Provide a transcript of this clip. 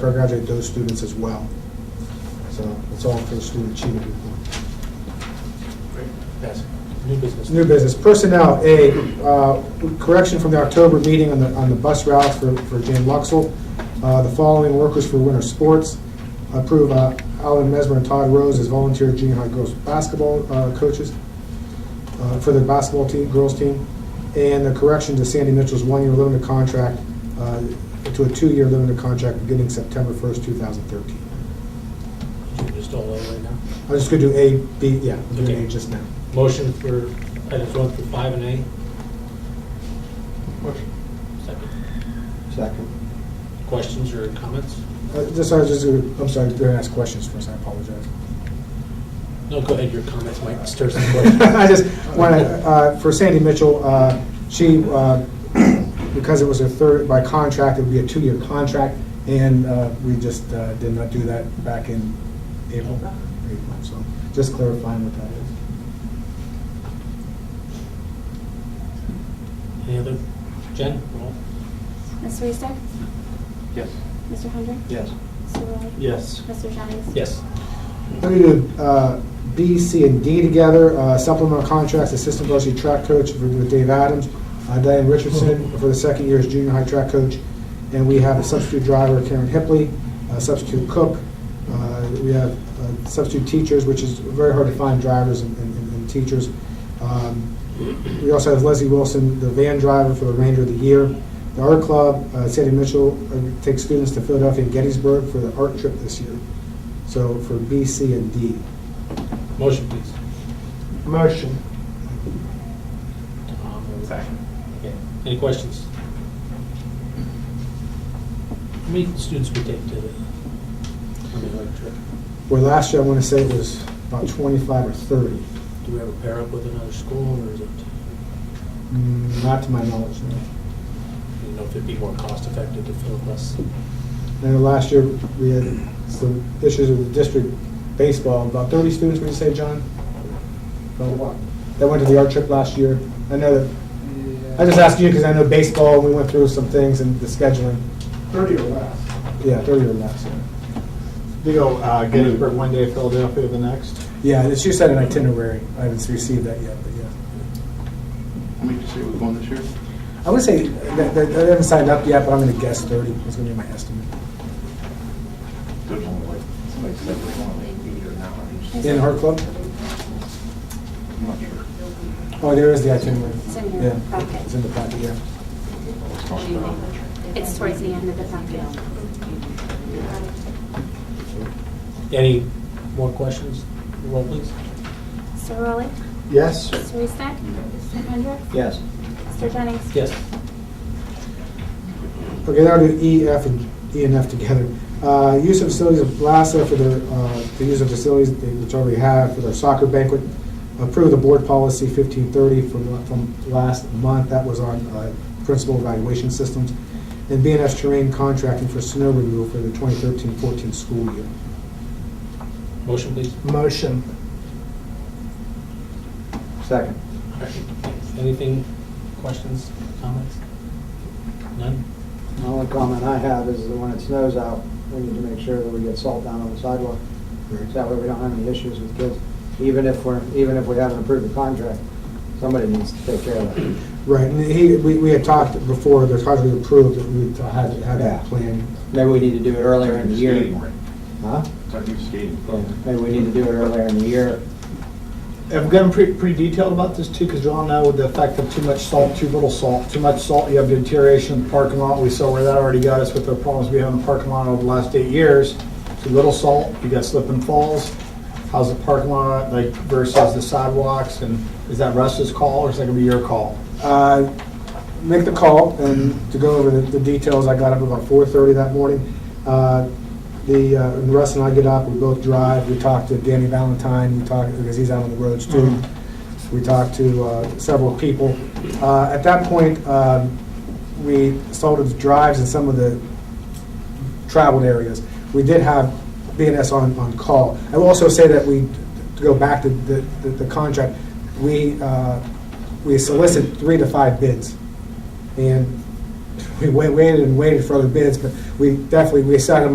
congratulate those students as well. So it's all for the student achievement report. Yes. New business. New business, personnel, A, uh, correction from the October meeting on the, on the bus routes for, for Jane Luxel. Uh, The following workers for winter sports. Approve uh, Alan Mesmer and Todd Rose as volunteer junior high girls basketball uh, coaches uh, for the basketball team, girls team. And the correction to Sandy Mitchell's one-year limited contract uh, to a two-year limited contract beginning September 1st, 2013. You're Just all over right now. I'm just going to do A, B, yeah, I'm doing Okay. A just now. Motion for items one through five and A. Second. Second. Questions or comments? Uh, Just, I was just, gonna- I'm sorry, I'm going to ask questions first, I apologize. No, go ahead, your comments might stir some questions. I just uh, want to, for Sandy Mitchell, uh, she, uh, because it was her third, by contract, it would be a two-year contract, and uh, we just uh, did not do that back in April. April, So just clarifying what that is. Any other? Jen? roll. Mr. Eastick? Yes. Mr. Hendrick? Yes. Mr. Rowley? Yes. Mr. Jennings? Yes. Let me do uh, B, C, and D together. Uh, Supplemental contracts, assistant varsity track coach for- with Dave Adams, uh, Diane Richardson for the second year as junior high track coach, and we have a substitute driver, Karen Hipley, a substitute cook. Uh, We have uh, substitute teachers, which is very hard to find drivers and- and and teachers. Um, We also have Leslie Wilson, the van driver for the Ranger of the Year. The Art Club, uh, Sandy Mitchell uh, takes students to Philadelphia and Gettysburg for the art trip this year. So for B, C, and D. Motion, please. Motion. Tom, or- Second. Okay. Any questions? How many students we take to the, I mean, like, trip? Where last year, I want to say it was about 25 or 30. do we ever pair up with another school, or is it, Mm, Not to my knowledge, no. you know, if it'd be more cost effective to fill less? And then last year, we had some issues with the district baseball, about 30 students, would you say, John? About what? That went to the art trip last year. I know that, I just asked you because I know baseball, we went through some things and the scheduling. Thirty or less. Yeah, 30 or less, yeah. They go uh, Gettysburg one day, Philadelphia the next. Yeah, it's- you said an itinerary. I haven't received that yet, but yeah. How many did you say was going this year? I would say, that- that- I haven't signed up yet, but I'm going to guess 30 is going to be my estimate. There's only like, somebody said there's only like eight or nine. In her club? I'm not sure. Oh, there is the itinerary. It's in your Yeah, packet. It's in the packet, yeah. It's not sure. It's towards the end of the packet. Any more questions? Roll, please. Mr. Rowley? Yes. Mr. Eastick? Mr. Hendrick? Yes. Mr. Jennings? Yes. Okay, now do E, F, and E and F together. Uh, Use of facilities of LASSA for their, uh, the use of facilities they- which already have for their soccer banquet. Approve the board policy 1530 from, la- from last month, that was on uh, principal evaluation systems. And B and F terrain contracting for snow removal for the 2013-14 school year. Motion, please. Motion. Second. All right. Anything, questions, comments? None? The only comment I have is that when it snows out, we need to make sure that we get salt down on the sidewalk. So that way we don't have any issues with kids. Even if we're, even if we haven't approved the contract, somebody needs to take care of that. Right, and he, we we had talked before, the contract was approved, that we had had that Yeah. plan. Maybe we need to do it earlier in the Skating year. rink. Huh? It's our new skating Yeah, rink. Maybe we need to do it earlier in the year. I've gotten pretty, pretty detailed about this too, because you all know the effect of too much salt, too little salt. Too much salt, you have deterioration in the parking lot. We saw where that already got us with the problems we have in the parking lot over the last eight years. Too little salt, you got slip and falls. How's the parking lot, like versus the sidewalks, and is that Russ's call or is that gonna be your call? uh, make the call and to go over the the details, I got up about 4:30 that morning. Uh, The, uh, and Russ and I get up, we both drive, we talk to Danny Valentine, we talk, because he's out on the roads too. We talked to uh, several people. Uh, At that point, um, we salted the drives in some of the traveled areas. We did have BNS on, on call. I will also say that we, to go back to the, the- the contract, we, uh, we solicited three to five bids. And we wa- waited and waited for other bids, but we definitely, we decided